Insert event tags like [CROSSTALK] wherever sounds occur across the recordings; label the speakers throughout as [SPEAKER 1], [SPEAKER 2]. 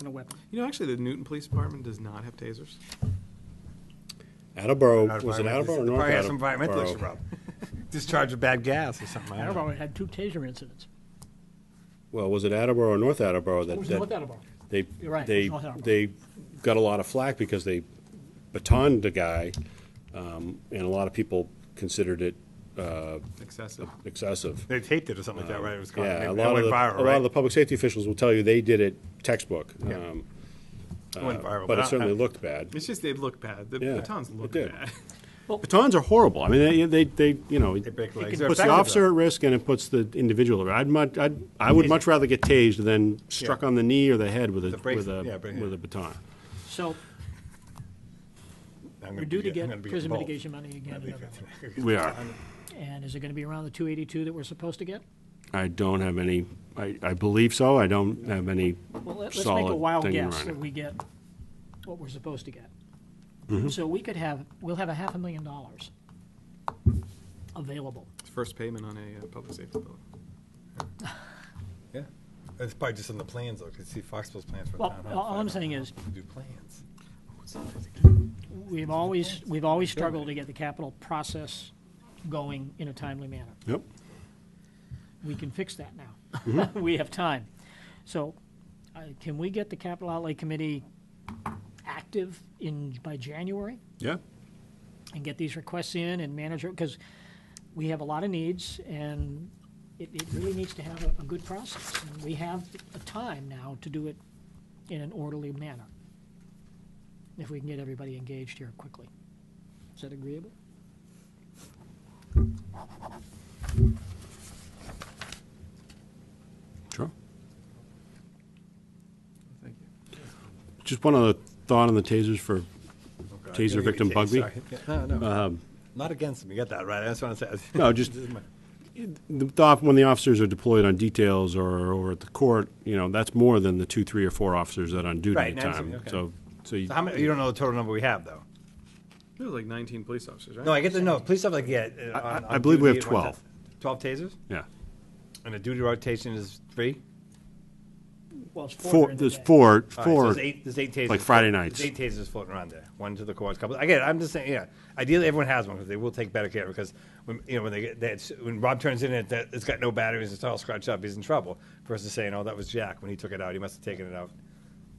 [SPEAKER 1] and a weapon.
[SPEAKER 2] You know, actually, the Newton Police Department does not have tasers.
[SPEAKER 3] Attleboro,
[SPEAKER 4] Not
[SPEAKER 3] was it
[SPEAKER 4] environmentalist.
[SPEAKER 3] Attleboro or
[SPEAKER 4] They
[SPEAKER 3] North
[SPEAKER 4] Probably has some environmental
[SPEAKER 3] Attleboro?
[SPEAKER 4] issue problem. Discharge of bad gas or something. I don't know.
[SPEAKER 1] Attleboro had two taser incidents.
[SPEAKER 3] Well, was it Attleboro or North Attleboro
[SPEAKER 1] It
[SPEAKER 3] that,
[SPEAKER 1] was North
[SPEAKER 3] that
[SPEAKER 1] Attleboro.
[SPEAKER 3] they,
[SPEAKER 1] You're right, it
[SPEAKER 3] they,
[SPEAKER 1] was North
[SPEAKER 3] they got a lot of flack because they batoned the guy, um, and a lot of people considered it uh,
[SPEAKER 2] Excessive. Uh,
[SPEAKER 3] excessive.
[SPEAKER 4] They taped it or something like that, right? It was called.
[SPEAKER 3] Yeah,
[SPEAKER 4] it
[SPEAKER 3] a
[SPEAKER 4] went
[SPEAKER 3] lot of, the-
[SPEAKER 4] viral,
[SPEAKER 3] a
[SPEAKER 4] right?
[SPEAKER 3] lot of the public safety officials will tell you they did it textbook,
[SPEAKER 4] Yeah.
[SPEAKER 3] um,
[SPEAKER 4] It went viral,
[SPEAKER 3] but
[SPEAKER 4] I-
[SPEAKER 3] it certainly
[SPEAKER 4] I-
[SPEAKER 3] looked bad.
[SPEAKER 2] It's just they look bad. The
[SPEAKER 3] Yeah,
[SPEAKER 2] batons
[SPEAKER 3] it
[SPEAKER 2] look
[SPEAKER 3] did.
[SPEAKER 2] bad.
[SPEAKER 3] Batons are horrible. I mean, they, they, they you know,
[SPEAKER 4] They break
[SPEAKER 3] it
[SPEAKER 4] legs.
[SPEAKER 3] puts
[SPEAKER 4] They're
[SPEAKER 3] the officer
[SPEAKER 4] effective,
[SPEAKER 3] at risk and it puts the individual at risk. I'd much, I'd, I would much rather get tased than struck
[SPEAKER 4] Yeah.
[SPEAKER 3] on the knee or the head with a,
[SPEAKER 4] The brace-
[SPEAKER 3] with a,
[SPEAKER 4] yeah, brace-
[SPEAKER 3] with a baton.
[SPEAKER 1] So
[SPEAKER 4] I'm gonna
[SPEAKER 1] we're due to
[SPEAKER 4] be- I'm gonna
[SPEAKER 1] get
[SPEAKER 4] be
[SPEAKER 1] prison
[SPEAKER 4] bold.
[SPEAKER 1] mitigation money again. another-
[SPEAKER 3] We are.
[SPEAKER 1] And is it going to be around the 282 that we're supposed to get?
[SPEAKER 3] I don't have any, I, I believe so. I don't have any
[SPEAKER 1] Well, let- let's make a
[SPEAKER 3] solid
[SPEAKER 1] wild
[SPEAKER 3] thing
[SPEAKER 1] guess
[SPEAKER 3] running.
[SPEAKER 1] that we get what we're supposed to get.
[SPEAKER 3] Mm-hmm.
[SPEAKER 1] So we could have, we'll have a half a million dollars available.
[SPEAKER 2] It's first payment on a uh, public safety building.
[SPEAKER 4] Yeah. It's probably just on the plans though, 'cause you see Foxville's plans for the
[SPEAKER 1] Well,
[SPEAKER 4] town hall.
[SPEAKER 1] all all I'm
[SPEAKER 4] I
[SPEAKER 1] saying is,
[SPEAKER 4] don't Do plans. Oh,
[SPEAKER 1] we've always, we've always struggled to get the capital process going in a timely manner.
[SPEAKER 3] Yep.
[SPEAKER 1] We can fix that now. [LAUGHS] We have time. So I- can we get the capital outlay committee active in, by January?
[SPEAKER 3] Yeah.
[SPEAKER 1] and get these requests in and manage it, because we have a lot of needs, and it, it really needs to have a, a good process. And We have a time now to do it in an orderly manner, if we can get everybody engaged here quickly. Is that agreeable?
[SPEAKER 3] Sure.
[SPEAKER 2] Thank you.
[SPEAKER 3] Just one other thought on the tasers for, Taser
[SPEAKER 4] You're gonna
[SPEAKER 3] victim
[SPEAKER 4] get
[SPEAKER 3] bug
[SPEAKER 4] tased,
[SPEAKER 3] me? Um,
[SPEAKER 4] sorry. Yeah, No, no. Not against him. You got that right. That's what I'm saying.
[SPEAKER 3] [LAUGHS] No,
[SPEAKER 4] [LAUGHS]
[SPEAKER 3] just-
[SPEAKER 4] This is my-
[SPEAKER 3] the, the off- when the officers are deployed on details or, or at the court, you know, that's more than the two, three, or four officers that are on duty
[SPEAKER 4] Right,
[SPEAKER 3] at
[SPEAKER 4] and
[SPEAKER 3] a
[SPEAKER 4] that's-
[SPEAKER 3] time.
[SPEAKER 4] okay.
[SPEAKER 3] So, so you.
[SPEAKER 4] So how many, you don't know the total number we have though?
[SPEAKER 2] There was like 19 police officers, right?
[SPEAKER 4] No, I get the, no, police stuff like, yeah. uh,
[SPEAKER 3] I-
[SPEAKER 4] on-
[SPEAKER 3] I
[SPEAKER 4] on
[SPEAKER 3] believe we
[SPEAKER 4] duty
[SPEAKER 3] have
[SPEAKER 4] at one time. Twelve tasers?
[SPEAKER 3] Yeah.
[SPEAKER 4] And the duty rotation is three?
[SPEAKER 1] Well, it's
[SPEAKER 3] Four, there's four,
[SPEAKER 4] All right, so
[SPEAKER 3] four.
[SPEAKER 4] there's eight, there's eight tasers.
[SPEAKER 3] like Friday
[SPEAKER 4] floating-
[SPEAKER 3] nights.
[SPEAKER 4] There's eight tasers floating around there. One to the courts, couple. I get it. I'm just saying, yeah. Ideally, everyone has one because they will take better care because when you know when they get that's when Rob turns in it that it's got no batteries, it's all scratched up, he's in trouble. Versus saying, oh, that was Jack when he took it out, he must have taken it out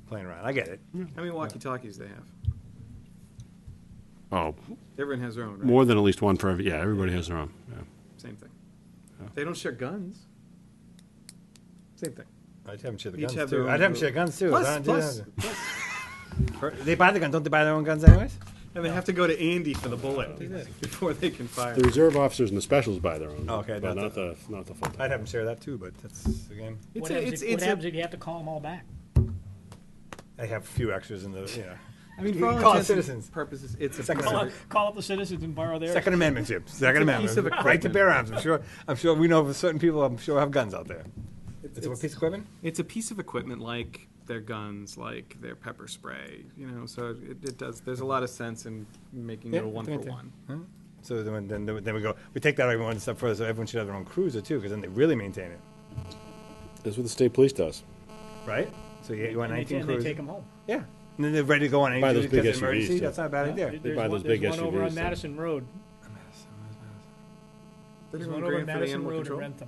[SPEAKER 4] playing around. I get it.
[SPEAKER 2] How many walkie-talkies they have?
[SPEAKER 3] Oh,
[SPEAKER 2] Everyone has their own, right?
[SPEAKER 3] more than at least one for every, yeah, everybody has their own. yeah.
[SPEAKER 2] Same thing. They don't share guns. Same thing.
[SPEAKER 4] I'd have them share the
[SPEAKER 2] Each
[SPEAKER 4] guns
[SPEAKER 2] have their
[SPEAKER 4] too.
[SPEAKER 2] own
[SPEAKER 4] I'd have them
[SPEAKER 2] little-
[SPEAKER 4] share guns too.
[SPEAKER 2] Plus-
[SPEAKER 4] Why don't they
[SPEAKER 2] plus-
[SPEAKER 4] have them? Or- They buy the guns. Don't they buy their own guns anyways?
[SPEAKER 2] And they have to go to Andy for the bullet before they can fire.
[SPEAKER 3] The reserve officers and the specials buy their own.
[SPEAKER 4] Okay,
[SPEAKER 3] But not
[SPEAKER 4] not
[SPEAKER 3] the, not the full
[SPEAKER 4] I'd
[SPEAKER 3] time.
[SPEAKER 4] have them share that too, but that's again,
[SPEAKER 1] What
[SPEAKER 2] It's a-
[SPEAKER 1] happens
[SPEAKER 2] it's-
[SPEAKER 1] if- what
[SPEAKER 2] it's a-
[SPEAKER 1] happens if you have to call them all back?
[SPEAKER 4] I have a few extras in the you know.
[SPEAKER 2] I mean,
[SPEAKER 4] You
[SPEAKER 2] for all
[SPEAKER 4] call it
[SPEAKER 2] intents
[SPEAKER 4] citizens.
[SPEAKER 2] and purposes, it's a
[SPEAKER 4] Second
[SPEAKER 2] piece of-
[SPEAKER 4] Amendment.
[SPEAKER 1] Call up the citizens and borrow their.
[SPEAKER 4] Second Amendment, Jim. Second
[SPEAKER 2] It's a piece of
[SPEAKER 4] Amendment. Right to
[SPEAKER 2] equipment.
[SPEAKER 4] bear arms. I'm sure. I'm sure we know of certain people. I'm sure have guns out there. It's, a
[SPEAKER 2] it's-
[SPEAKER 4] piece of equipment.
[SPEAKER 2] It's a piece of equipment like their guns, like their pepper spray, you know, so it, it does, there's a lot of sense in making it
[SPEAKER 4] Yeah,
[SPEAKER 2] a one for
[SPEAKER 4] right there.
[SPEAKER 2] one.
[SPEAKER 4] So then, then, then we go. We take that one step further. So everyone should have their own cruiser too, because then they really maintain it,
[SPEAKER 3] That's what the state police does.
[SPEAKER 4] right? So you, you want
[SPEAKER 1] And they,
[SPEAKER 4] 19
[SPEAKER 1] and they
[SPEAKER 4] cruisers.
[SPEAKER 1] take them home.
[SPEAKER 4] Yeah. And then they're ready to go on any
[SPEAKER 3] Buy
[SPEAKER 4] duty
[SPEAKER 3] those big
[SPEAKER 4] because of
[SPEAKER 3] SUVs,
[SPEAKER 4] emergency.
[SPEAKER 3] too.
[SPEAKER 4] That's not a bad idea.
[SPEAKER 3] They
[SPEAKER 1] There's
[SPEAKER 3] buy
[SPEAKER 1] one-
[SPEAKER 3] those big
[SPEAKER 1] There's one over
[SPEAKER 3] SUVs,
[SPEAKER 1] on
[SPEAKER 3] so-
[SPEAKER 1] Madison Road. There's one over on Madison Road in Rentham.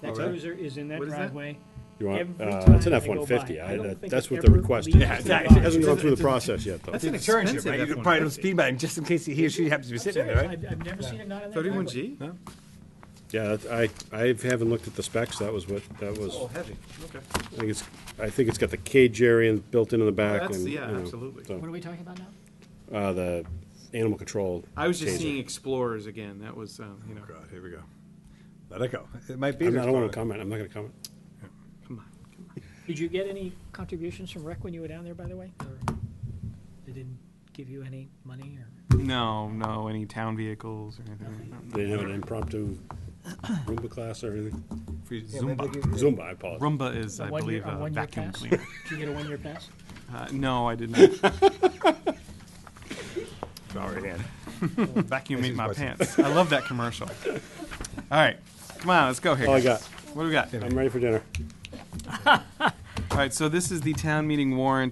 [SPEAKER 1] That
[SPEAKER 2] Alright.
[SPEAKER 1] cruiser is in that
[SPEAKER 2] What is that?
[SPEAKER 1] driveway.
[SPEAKER 3] Oh, You want,
[SPEAKER 1] Every
[SPEAKER 3] uh,
[SPEAKER 1] time
[SPEAKER 3] it's an
[SPEAKER 1] I go
[SPEAKER 3] F-150.
[SPEAKER 1] by,
[SPEAKER 3] I-
[SPEAKER 1] I don't
[SPEAKER 3] that-
[SPEAKER 1] think
[SPEAKER 3] That's
[SPEAKER 1] it
[SPEAKER 3] what the
[SPEAKER 1] ever
[SPEAKER 3] request is.
[SPEAKER 1] leaves
[SPEAKER 4] Yeah,
[SPEAKER 3] It
[SPEAKER 4] the exactly. box.
[SPEAKER 3] Hasn't gone through the process yet, though.
[SPEAKER 4] That's an insurance chip,
[SPEAKER 2] expensive,
[SPEAKER 4] right? You
[SPEAKER 2] that
[SPEAKER 4] could probably don't
[SPEAKER 2] 150.
[SPEAKER 4] speed by him just in case he or she happens to be sitting in there,
[SPEAKER 1] Serious,
[SPEAKER 4] right?
[SPEAKER 1] I've, I've never seen it not in that
[SPEAKER 2] Thirty-one
[SPEAKER 1] driveway.
[SPEAKER 2] G?
[SPEAKER 4] No?
[SPEAKER 3] Yeah, that- I, I haven't looked at the specs. That was what, that was,
[SPEAKER 2] Oh, heavy, okay.
[SPEAKER 3] I think it's, I think it's got the cage area built into the back.
[SPEAKER 2] That's-
[SPEAKER 3] and,
[SPEAKER 2] yeah,
[SPEAKER 3] you know,
[SPEAKER 2] absolutely.
[SPEAKER 3] so,
[SPEAKER 1] What are we talking about now?
[SPEAKER 3] Uh, the animal control.
[SPEAKER 2] I was just
[SPEAKER 3] taser.
[SPEAKER 2] seeing Explorers again, that was, um, you know,
[SPEAKER 4] God, here we go. Let it go. It might be.
[SPEAKER 3] I'm
[SPEAKER 4] their
[SPEAKER 3] not- I don't want to
[SPEAKER 4] problem.
[SPEAKER 3] comment. I'm not going to comment.
[SPEAKER 2] come on, come on.
[SPEAKER 1] Did you get any contributions from rec when you were down there, by the way? Or They didn't give you any money or?
[SPEAKER 2] No, no, any town vehicles or anything? No,
[SPEAKER 3] They didn't have an impromptu Roomba class or anything.
[SPEAKER 2] no. Free
[SPEAKER 4] Yeah, maybe they
[SPEAKER 2] Zumba.
[SPEAKER 4] give you-
[SPEAKER 3] Zumba, I apologize.
[SPEAKER 2] Roomba is,
[SPEAKER 1] a
[SPEAKER 2] I
[SPEAKER 1] one-year-
[SPEAKER 2] believe,
[SPEAKER 1] a
[SPEAKER 2] a
[SPEAKER 1] one-year
[SPEAKER 2] vacuum
[SPEAKER 1] pass?
[SPEAKER 2] cleaner.
[SPEAKER 1] Did you get a one-year pass?
[SPEAKER 2] Uh, No, I didn't.
[SPEAKER 4] [LAUGHS] Sorry, Dan.
[SPEAKER 2] Vacuum
[SPEAKER 4] This
[SPEAKER 2] ate
[SPEAKER 4] is
[SPEAKER 2] my
[SPEAKER 4] what's-
[SPEAKER 2] pants. I love that commercial. All right, come on, let's go here.
[SPEAKER 3] All I
[SPEAKER 2] guys.
[SPEAKER 3] got.
[SPEAKER 2] What do we got?
[SPEAKER 3] I'm ready for dinner.
[SPEAKER 2] All right, so this is the town meeting warrant